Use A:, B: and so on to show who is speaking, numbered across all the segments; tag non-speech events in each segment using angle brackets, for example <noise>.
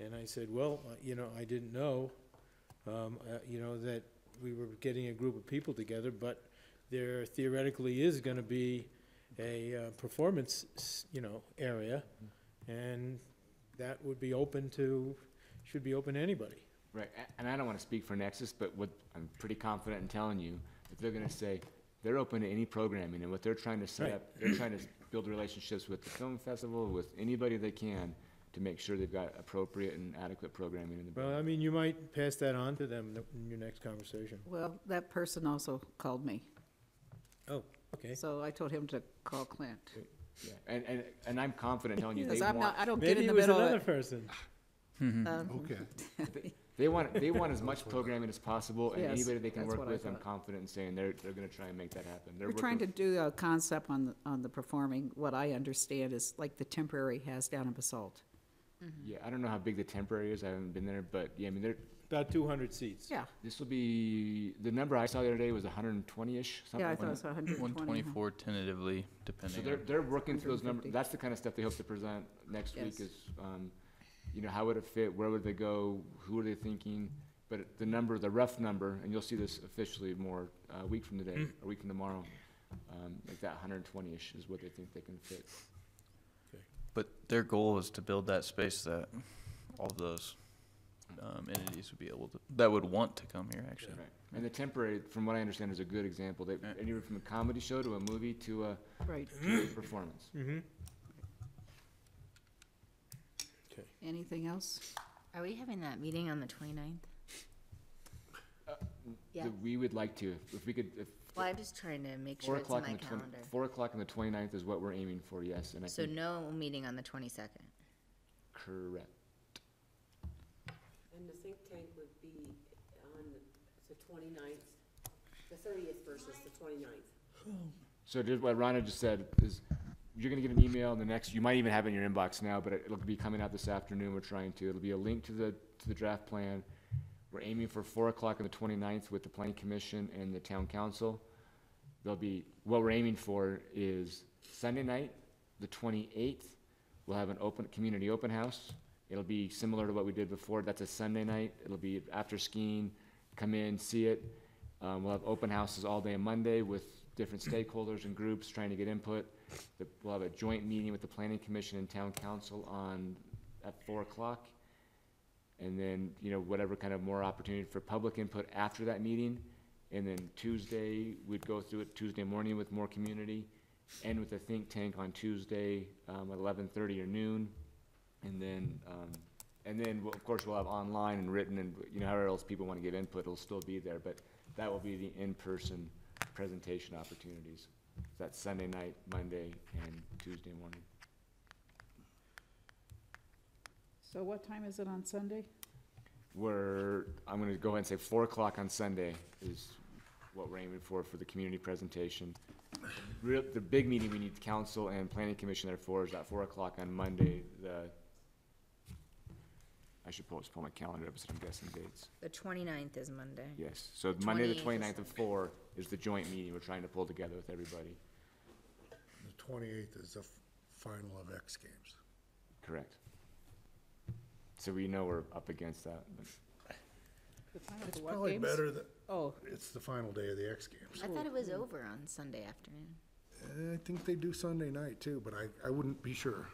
A: And I said, well, uh, you know, I didn't know, um, uh, you know, that we were getting a group of people together, but there theoretically is gonna be a, uh, performance, s- you know, area, and that would be open to, should be open to anybody.
B: Right, a- and I don't want to speak for Nexus, but what, I'm pretty confident in telling you, that they're gonna say, they're open to any programming, and what they're trying to set
A: Right.
B: up, they're trying to build relationships with the film festival, with anybody they can, to make sure they've got appropriate and adequate programming in the
A: Well, I
B: building.
A: mean, you might pass that on to them in your next conversation.
C: Well, that person also called me,
A: Oh, okay.
C: so I told him to call Clint.
B: Yeah, And, and, and I'm confident in telling you,
C: Because
B: they
C: I'm not,
B: want,
C: I don't get
A: Maybe
C: in the
A: it was
C: middle of
A: another
C: it.
A: person.
C: Um,
D: Okay,
B: they want, they want as
A: <laughs>
B: much programming as possible, and
C: Yes,
B: anybody they can
C: that's
B: work
C: what I
B: with, I'm
C: thought.
B: confident in saying, they're, they're gonna try and make that happen. They're
C: We're trying to
B: working-
C: do a concept on, the on the performing, what I understand is like the temporary has down in Basalt.
B: Yeah, I don't know how big the temporary is, I haven't been there, but, yeah, I mean, they're,
A: About two hundred seats.
C: Yeah,
B: this will be, the number I saw the other day was hundred and twenty-ish, something
C: yeah, I
B: like
C: thought it
B: that.
C: was hundred and
E: One
C: twenty.
E: twenty-four tentatively,
B: So
E: depending
B: they're,
E: on,
B: they're working through those numbers,
C: 150.
B: that's the kind of stuff they hope to present next week
C: Yes.
B: is, um, you know, how would it fit, where would they go, who are they thinking? But it- the number, the rough number, and you'll see this officially more, uh, a week from today, or a week from tomorrow, um, like that hundred and twenty-ish is what they think they can fit.
E: but their goal is to build that space that all of those um, entities would be able to, that would want to come here, actually.
B: Right. And the temporary, from what I understand, is a good example, they,
E: Yeah.
B: anywhere from a comedy show to a movie to a,
C: Right,
B: to a performance.
C: Mm.
A: Mm-hmm.
C: anything else?
F: Are we having that meeting on the 29th? Yeah.
B: That We would like to, if we could, if
F: Well, I'm just trying to make
B: four
F: sure it's in
B: o'clock on
F: my
B: the twen-
F: calendar.
B: four o'clock on the twenty-ninth is what we're aiming for, yes, and I
F: So
B: think,
F: no meeting on the 22nd.
B: correct.
G: And the think tank would be on the 29th, the thirtieth versus the 29th.
B: So just what Rhonda just said is, you're gonna get an email in the next, you might even have it in your inbox now, but it'll be coming out this afternoon, we're trying to, it'll be a link to the, to the draft plan. We're aiming for four o'clock on the 29th with the planning commission and the town council. There'll be, what we're aiming for is Sunday night, the twenty-eighth, we'll have an open, community open house. It'll be similar to what we did before, that's a Sunday night, it'll be after skiing, come in, see it. Um, we'll have open houses all day Monday with different stakeholders and groups trying to get input. The- We'll have a joint meeting with the planning commission and town council on, at four o'clock. And then, you know, whatever kind of more opportunity for public input after that meeting. And then Tuesday, we'd go through it Tuesday morning with more community, end with a think tank on Tuesday, um, at eleven thirty or noon. And then, um, and then, we'll- of course, we'll have online and written and, you know, however else people wanna give input, it'll still be there, but that will be the in-person presentation opportunities. That's Sunday night, Monday, and Tuesday morning.
C: So what time is it on Sunday?
B: We're, I'm gonna go ahead and say four o'clock on Sunday is what we're aiming for, for the community presentation. Real, the big meeting we need council and planning commission there for is at four o'clock on Monday, the, I should pull, just pull my calendar up, so I'm guessing dates.
F: The 29th is Monday.
B: Yes, so Monday, the
F: 28th is-
B: 29th of four is the joint meeting we're trying to pull together with everybody.
D: the twenty-eighth is the f- final of X Games.
B: Correct. So we know we're up against that.
C: The time of
D: It's
C: the what
D: probably
C: games?
D: better that,
C: Oh,
D: it's the final day of the X Games.
F: I thought it was over on Sunday afternoon.
D: I think they do Sunday night too, but I, I wouldn't be sure.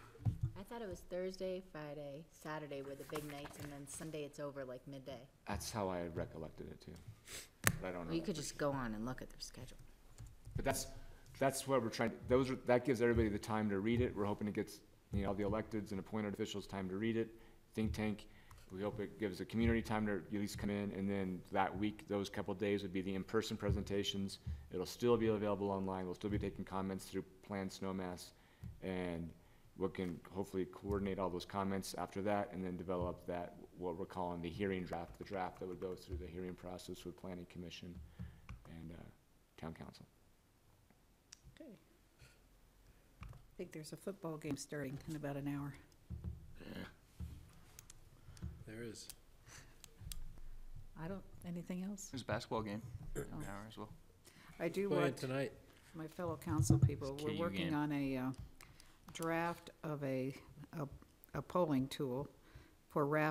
F: I thought it was Thursday, Friday, Saturday were the big nights, and then Sunday it's over like midday.
B: That's how I recollected it too. But I don't know.
F: Well, you could just go on and look at their schedule.
B: But that's, that's what we're trying, those are, that gives everybody the time to read it. We're hoping it gets, you know, all the electeds and appointed officials time to read it, think tank. We hope it gives the community time to at least come in, and then that week, those couple days would be the in-person presentations. It'll still be available online. We'll still be taking comments through Planned Snowmass. And we can hopefully coordinate all those comments after that, and then develop that, what we're calling the hearing draft, the draft that would go through the hearing process with planning commission and, uh, town council.
C: okay. I think there's a football game starting in about an hour.
A: There is.
C: I don't, anything else?
E: There's a basketball game, in an hour as well.
C: I do
A: Playing
C: want
A: tonight.
C: my fellow council people,
E: It's
C: we're
E: KU
C: working
E: game.
C: on a uh, draft of a, a- a polling tool for RAF